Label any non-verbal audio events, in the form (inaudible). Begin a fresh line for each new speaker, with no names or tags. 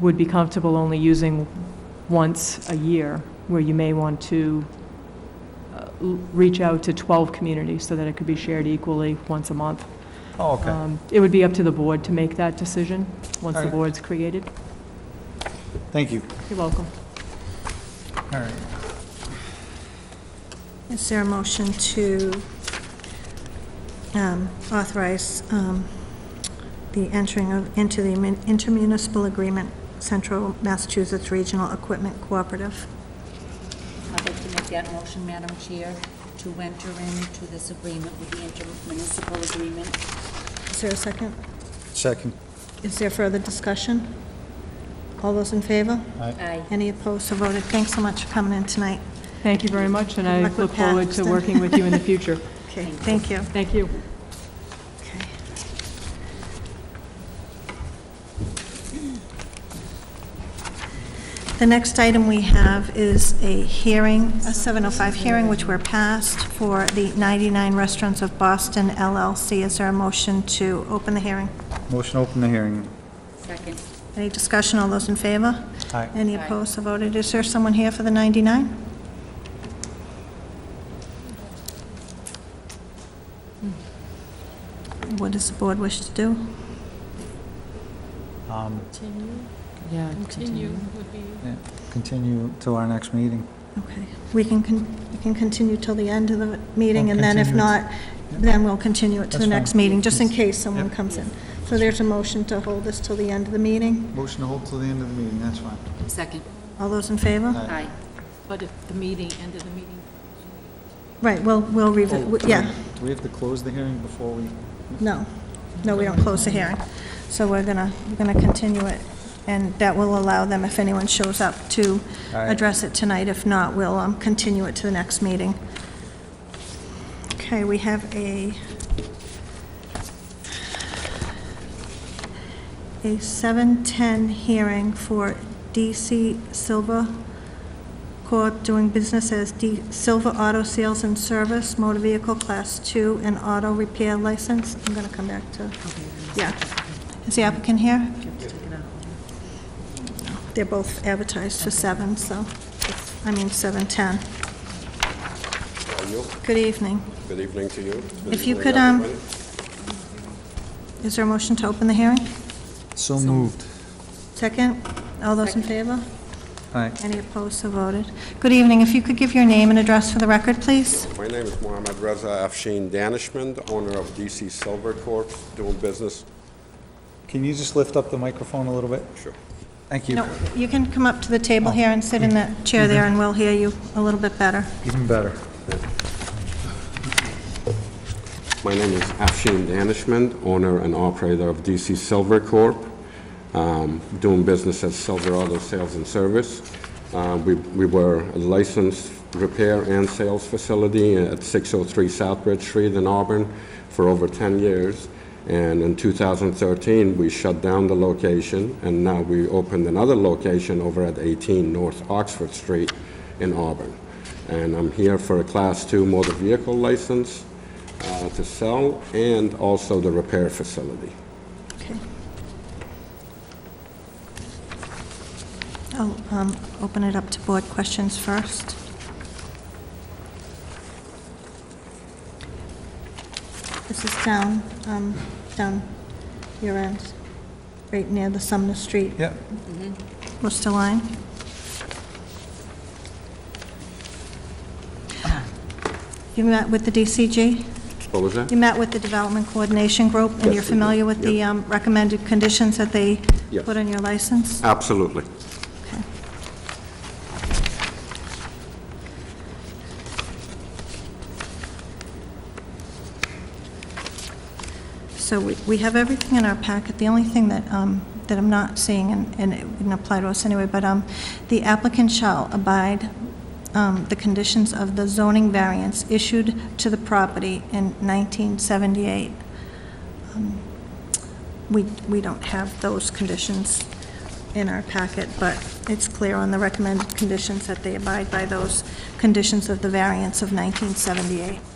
would be comfortable only using once a year, where you may want to uh, l- reach out to 12 communities so that it could be shared equally once a month.
Oh, okay.
Um, It would be up to the board to make that decision, once the
Alright.
board's created.
Thank you.
You're welcome.
All right.
Is there a motion to um, authorize um, the entering of, into the mun- intermunicipal agreement, Central Massachusetts Regional Equipment Cooperative?
I'd like to make that motion, Madam Chair, to enter into this agreement with the intermunicipal agreement.
Is there a second?
Second.
Is there further discussion? All those in favor?
Aye.
Any opposed, so voted. Thanks so much for coming in tonight.
Thank you very much, and
Good
I
luck with
look forward to
Paxton.
working with you in the
(laughs)
future.
Okay, thank you.
Thank you.
Okay. The next item we have is a hearing, a 705 hearing, which we're past, for the 99 Restaurants of Boston LLC. Is there a motion to open the hearing?
Motion to open the hearing.
Second.
Any discussion? All those in favor?
Aye.
Any
Aye.
opposed So voted? Is there someone here for the 99? What does the board wish to do?
Um,
Continue,
Yeah.
continue would be,
yeah, Continue to our next meeting.
Okay, we can, con- we can continue till the end of the meeting,
We'll
and then if
Oh, continue it.
not, then we'll continue it to the
That's
next
fine.
meeting, just in
Yes.
case someone
Yep.
comes in. So there's a motion to hold this till the end of the meeting.
Motion to hold till the end of the meeting, that's fine.
Second.
All those in favor?
Aye.
but if the meeting, end of the meeting,
Right, well, we'll
Oh,
revisit, yeah,
Do we have to close the hearing before we?
no, no, we don't close the hearing. So we're gonna, we're gonna continue it, and that will allow them, if anyone shows up, to
All right.
address it tonight. If not, we'll um, continue it to the next meeting. Okay, we have a, a 7:10 hearing for DC Silva Corp. doing business as D Silva Auto Sales and Service, motor vehicle class 2 and auto repair license. I'm going to come back to, yeah. Is the applicant here? They're both advertised for 7, so, I mean, 7:10.
Are you?
Good evening.
Good evening to you. Good
If you
evening,
could, um,
everybody.
Is there a motion to open the hearing?
So moved.
Second? All those in favor?
Aye.
Any opposed, so voted. Good evening. If you could give your name and address for the record, please?
My name is Mohammed Reza Afshin Danishmand, owner of DC Silver Corp., doing business.
Can you just lift up the microphone a little bit?
Sure.
Thank you.
No, you can come up to the table here and sit in that chair there, and we'll hear you a little bit better.
Even better.
My name is Afshin Danishmand, owner and operator of DC Silver Corp., um, doing business as Silver Auto Sales and Service. Uh, We we were a licensed repair and sales facility at 603 Southbridge Street in Auburn for over 10 years. And in 2013, we shut down the location, and now we opened another location over at 18 North Oxford Street in Auburn. And I'm here for a Class II motor vehicle license uh, to sell and also the repair facility.
Okay. I'll um, open it up to board questions first. This is down, um, down your end, right near the Sumner Street.
Yep.
Worcester line. You met with the DCG?
What was that?
You met with the Development Coordination Group, and
Yes,
you're
we did.
familiar with the
Yep.
um, recommended conditions that they
Yes.
put on your license?
Absolutely.
Okay. So we we have everything in our packet. The only thing that, um, that I'm not seeing, and and it wouldn't apply to us anyway, but um, the applicant shall abide um, the conditions of the zoning variance issued to the property in 1978. Um, We, we don't have those conditions in our packet, but it's clear on the recommended conditions that they abide by those conditions of the variance of 1978.